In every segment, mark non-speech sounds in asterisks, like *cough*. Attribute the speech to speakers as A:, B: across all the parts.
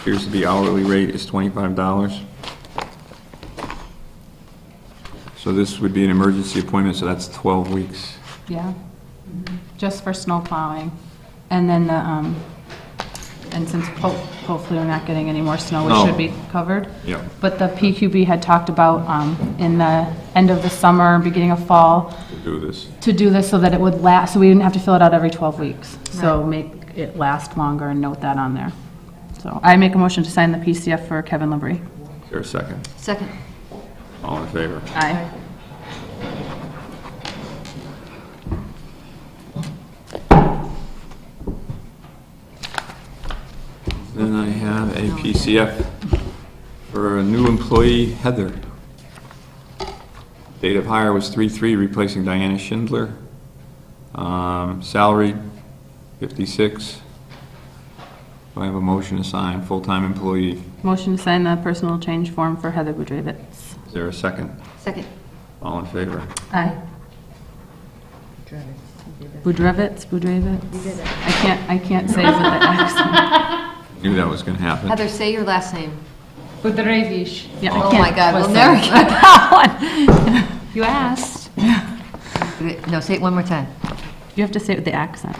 A: Appears to be hourly rate is twenty-five dollars. So this would be an emergency appointment, so that's twelve weeks.
B: Yeah, just for snow plowing. And then, the, um, and since ho- hopefully we're not getting any more snow,
A: No.
B: it should be covered.
A: Yeah.
B: But the PQB had talked about um, in the end of the summer, beginning of fall,
A: to Do this.
B: to do this so that it would last, so we didn't have to fill it out every 12 weeks. So make it last longer and note that on there. So I make a motion to sign the PCF for Kevin Labrie.
A: Is there a second?
C: Second.
A: All in favor?
B: Aye.
A: Then I have a PCF for a new employee, Heather. Date of hire was 3/3, replacing Diana Schindler. Um, Salary, 56. Do I have a motion to sign, full-time employee?
B: Motion to sign the personal change form for Heather Budrevitz.
A: Is there a second?
C: Second.
A: All in favor?
B: Aye. Budrevitz, Budrevitz? I can't, I can't say it with the
C: *laughs*
B: accent.
A: Knew that was going to happen.
C: Heather, say your last name.
D: Budrevish.
B: Yeah, I
C: Oh
B: can't-
C: my God, we'll
B: listen.
C: never
B: *laughs*
C: get that
D: You asked.
C: one. No, say it one more time.
B: You have to say it with the accent.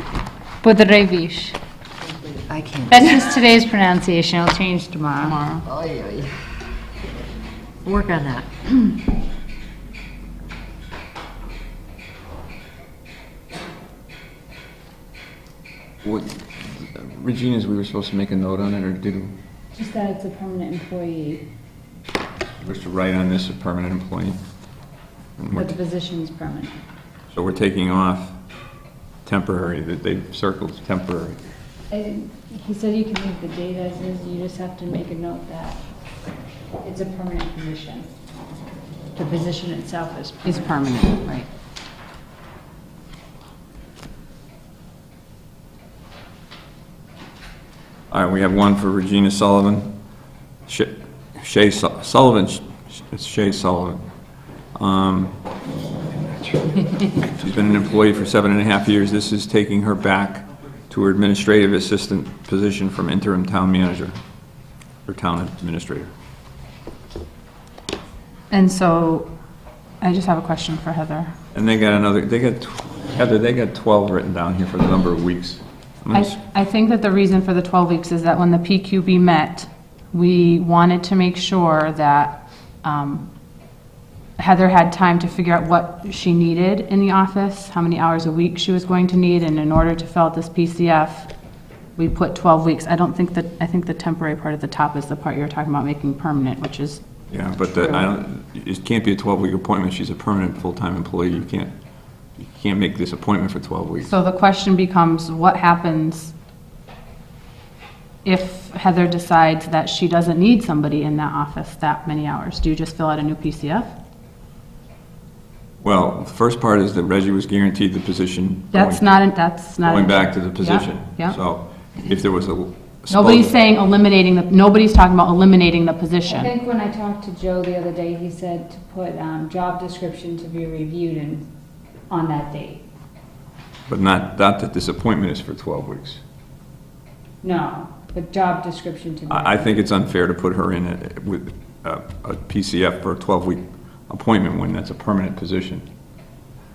D: Budrevish.
C: I can't.
D: That's just today's pronunciation. I'll change tomorrow.
B: Tomorrow.
C: Oy, oy. Work on that.
A: What- Regina's, we were supposed to make a note on it, or did we?
D: Just that it's a permanent employee,
A: We're supposed to write on this, a permanent employee. And we're-
D: but the position's permanent.
A: So we're taking off temporary, that they circled temporary.
D: He said you can leave the date as is, you just have to make a note that it's a permanent position. The position itself is
B: Is
D: permanent.
B: permanent, right.
A: All right, we have one for Regina Sullivan, Sh- Shay Su- Sullivan, Sh- it's Shay Sullivan. Um, She's been an employee for seven and a half years. This is taking her back to her administrative assistant position from interim town manager, or town administrator.
B: And so, I just have a question for Heather.
A: And they got another, they got, tw- Heather, they got 12 written down here for the number of weeks. I'm gonna s-
B: I, I think that the reason for the 12 weeks is that when the PQB met, we wanted to make sure that um, Heather had time to figure out what she needed in the office, how many hours a week she was going to need, and in order to fill out this PCF, we put 12 weeks. I don't think that, I think the temporary part at the top is the part you were talking about making permanent, which is,
A: Yeah, but the, I don't, it can't be a 12-week appointment, she's a permanent, full-time employee, you can't, you can't make this appointment for 12 weeks.
B: so the question becomes, what happens if Heather decides that she doesn't need somebody in that office that many hours? Do you just fill out a new PCF?
A: Well, the first part is that Reggie was guaranteed the position.
B: That's
A: going-
B: not, that's not.
A: Going back to the position.
B: yeah.
A: So if there was a.
B: Nobody's saying eliminating, the. nobody's talking about eliminating the position.
E: I think when I talked to Joe the other day, he said to put um, job description to be reviewed and, on that date.
A: But not, not that this appointment is for 12 weeks.
E: No, but job description to be.
A: I, I think it's unfair to put her in it with a a PCF for a 12-week appointment when that's a permanent position.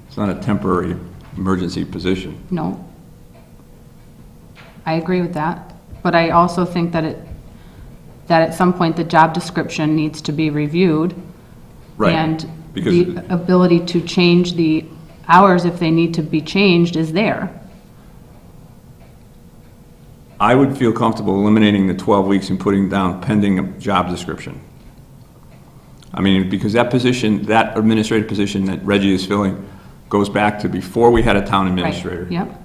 A: It's not a temporary emergency position.
B: No. I agree with that, but I also think that it, that at some point, the job description needs to be reviewed.
A: Right,
B: And
A: because-
B: the ability to change the hours if they need to be changed is there.
A: I would feel comfortable eliminating the 12 weeks and putting down pending a job description. I mean, because that position, that administrative position that Reggie is filling goes back to before we had a town
B: Right,
A: administrator.
B: Yep.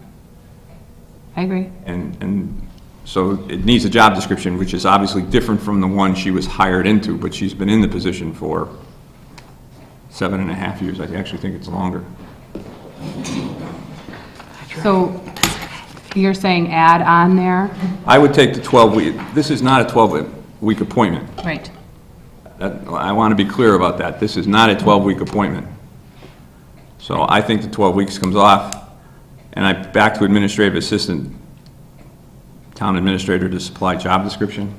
B: I agree.
A: And, and so it needs a job description, which is obviously different from the one she was hired into, but she's been in the position for seven and a half years. I actually think it's longer.
B: So you're saying add on there?
A: I would take the 12 week, this is not a 12-week appointment.
B: Right.
A: That- I want to be clear about that. This is not a 12-week appointment. So I think the 12 weeks comes off, and I, back to administrative assistant, town administrator to supply job description.